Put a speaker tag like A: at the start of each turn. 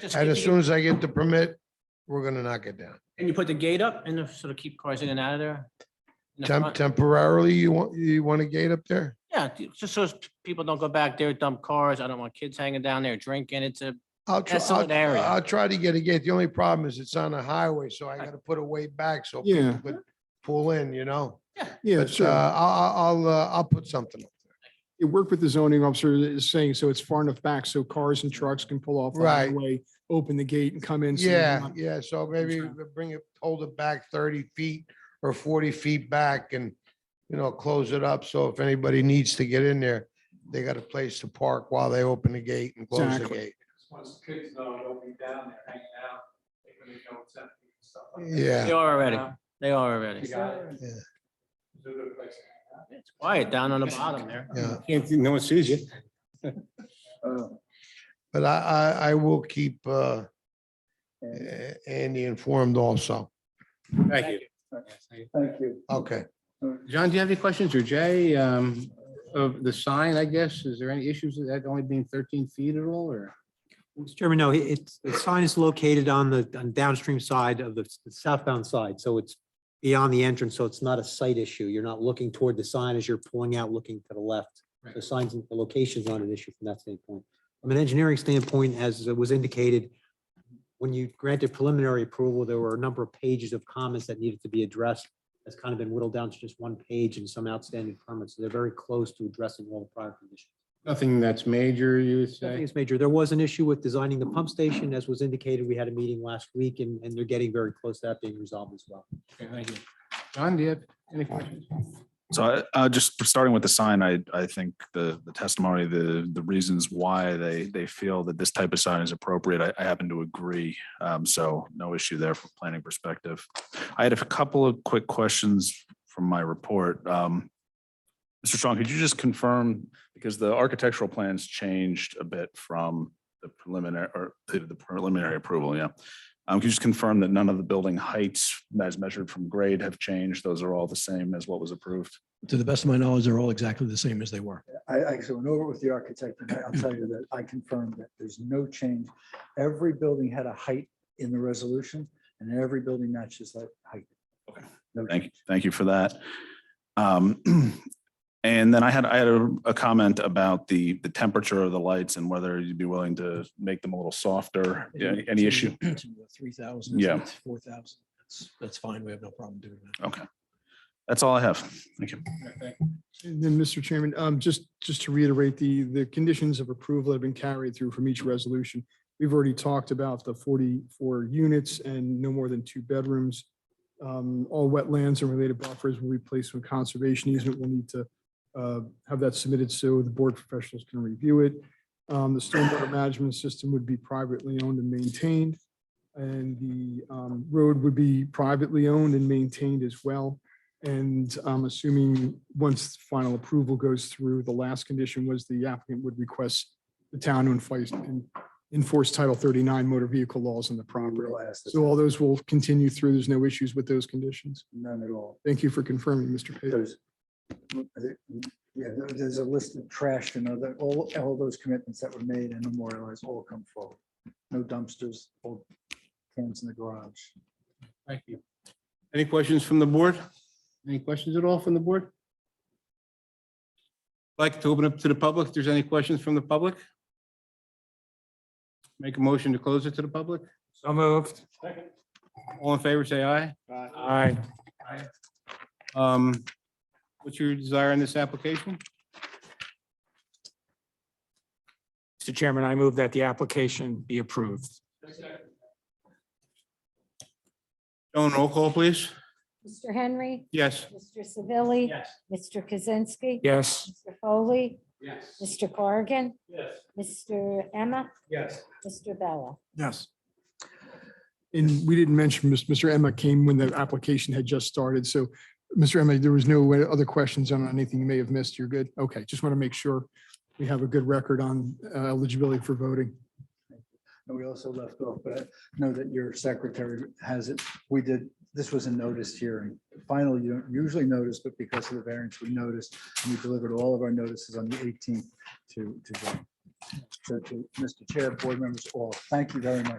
A: Just
B: And as
A: keep-
B: soon as I get the permit, we're gonna knock it down.
A: Can you put the gate up and just sort of keep cars in and out of there? In the
B: Temp-
A: front?
B: Temporarily, you want, you want a gate up there?
A: Yeah, ju- just so as p- people don't go back there, dump cars. I don't want kids hanging down there drinking. It's a,
B: I'll try,
A: That's an
B: I'll,
A: area.
B: I'll try to get a gate. The only problem is it's on a highway, so I gotta put a way back so
C: Yeah,
B: people could pull in, you know? But,
C: yeah,
B: uh,
C: sure.
B: I'll, I'll, uh, I'll put something. up.
C: It worked with the zoning officer that is saying, so it's far enough back so cars and trucks can pull off. the
B: Right.
C: highway, Open the gate and come in. so they're
B: Yeah,
C: not-
B: yeah, so maybe bring it, hold it back thirty feet or forty feet back and, you know, close it up. So if anybody needs to get in there, they got a place to park while they open the gate and close the
C: Exactly.
B: gate.
D: Once the kids know, they'll be down there hanging out, they're gonna go with something and stuff like that.
A: they
B: Yeah,
A: are already,
D: Yeah.
A: they are already.
D: You got it.
B: Yeah.
D: It's a good place to hang out.
A: It's quiet down on the bottom there.
B: yeah.
E: Can't, no one sees you.
B: But I, I, I will keep, uh, A- Andy informed also.
E: Thank you.
D: Thank you.
B: Okay.
E: John, do you have any questions or Jay, um, of the sign, I guess? Is there any issues with that only being thirteen feet at all or?
F: Mr. Chairman, no, it- it's, the sign is located on the on downstream side of the s- the southbound side, so it's beyond the entrance, so it's not a site issue. You're not looking toward the sign as you're pulling out, looking to the left. The signs, and the location's not an issue from that standpoint. From an engineering standpoint, as was indicated, when you granted preliminary approval, there were a number of pages of comments that needed to be addressed. That's kind of been whittled down to just one page and some outstanding permits. So They're very close to addressing all the prior conditions.
E: Nothing that's major, you would
F: I think
E: say?
F: it's major. There was an issue with designing the pump station, as was indicated. We had a meeting last week and, and they're getting very close to that being resolved as well.
E: Okay, thank you. John, do you have any questions?
G: So I, uh, just starting with the sign, I, I think the, the testimony, the, the reasons why they, they feel that this type of sign is appropriate, I, I happen to agree. Um, so no issue there from planning perspective. I had a couple of quick questions from my report. Um, Mr. Strong, could you just confirm, because the architectural plans changed a bit from the preliminary, or the the preliminary approval, yeah. Um, can you just confirm that none of the building heights as measured from grade have changed? Those are all the same as what was approved?
H: to the best of my knowledge, they're all exactly the same as they were.
I: I actually went over it with the architect and I- I'll tell you that I confirmed that there's no change. Every building had a height in the resolution and every building matches that height.
G: Okay.
I: No
G: Thank, you.
I: change.
G: thank you for that. Um, And then I had, I had a, a comment about the, the temperature of the lights and whether you'd be willing to make them a little softer. Yeah, Any issue?
H: Three thousand.
G: Yeah.
H: Four thousand. That's, that's fine. We have no problem doing that.
G: Okay. That's all I have. Thank you.
C: And then, Mr. Chairman, um, just, just to reiterate, the, the conditions of approval have been carried through from each resolution. We've already talked about the forty-four units and no more than two bedrooms. Um, all wetlands and related buffers will be placed with conservation easement. We'll need to, uh, have that submitted so the board professionals can review it. Um, the stormwater management system would be privately owned and maintained. And the, um, road would be privately owned and maintained as well. And I'm assuming once final approval goes through, the last condition was the applicant would request the town to enforce, enforce Title 39 motor vehicle laws on the property.
I: Real asset,
C: So all those will continue through. There's no issues with those conditions.
I: None at all.
C: Thank you for confirming, Mr. Page.
I: There's, yeah, there- there's a list of trash and other, all, all those commitments that were made and memorialized all come forward. No dumpsters, old cans in the garage.
E: Thank you. Any questions from the board? Any questions at all from the board? Like to open up to the public. If there's any questions from the public? Make a motion to close it to the public?
D: So moved.
E: All in favor, say aye.
D: Aye.
E: Um, what's your desire on this application?
D: Mr. Chairman, I move that the application be approved.
E: Joan, roll call, please.
J: Mr. Henry,
E: Yes.
J: Mr. Savili,
D: Yes.
J: Mr. Kaczynski.
D: Yes.
J: Mr. Foley,
D: Yes.
J: Mr. Corrigan,
D: Yes.
J: Mr. Emma,
D: Yes.
J: Mr. Bella.
C: Yes. And we didn't mention, Mis- Mr. Emma came when the application had just started. So, Mr. Emma, there was no other questions on anything you may have missed. You're good? Okay, just want to make sure we have a good record on uh, eligibility for voting.
I: And we also left off, but I know that your secretary has it. We did, this was a noticed hearing. Finally, you don't usually notice, but because of the variance, we noticed and we delivered all of our notices on the eighteenth to, to. them. So to Mr. Chair, board members, all, thank you very much.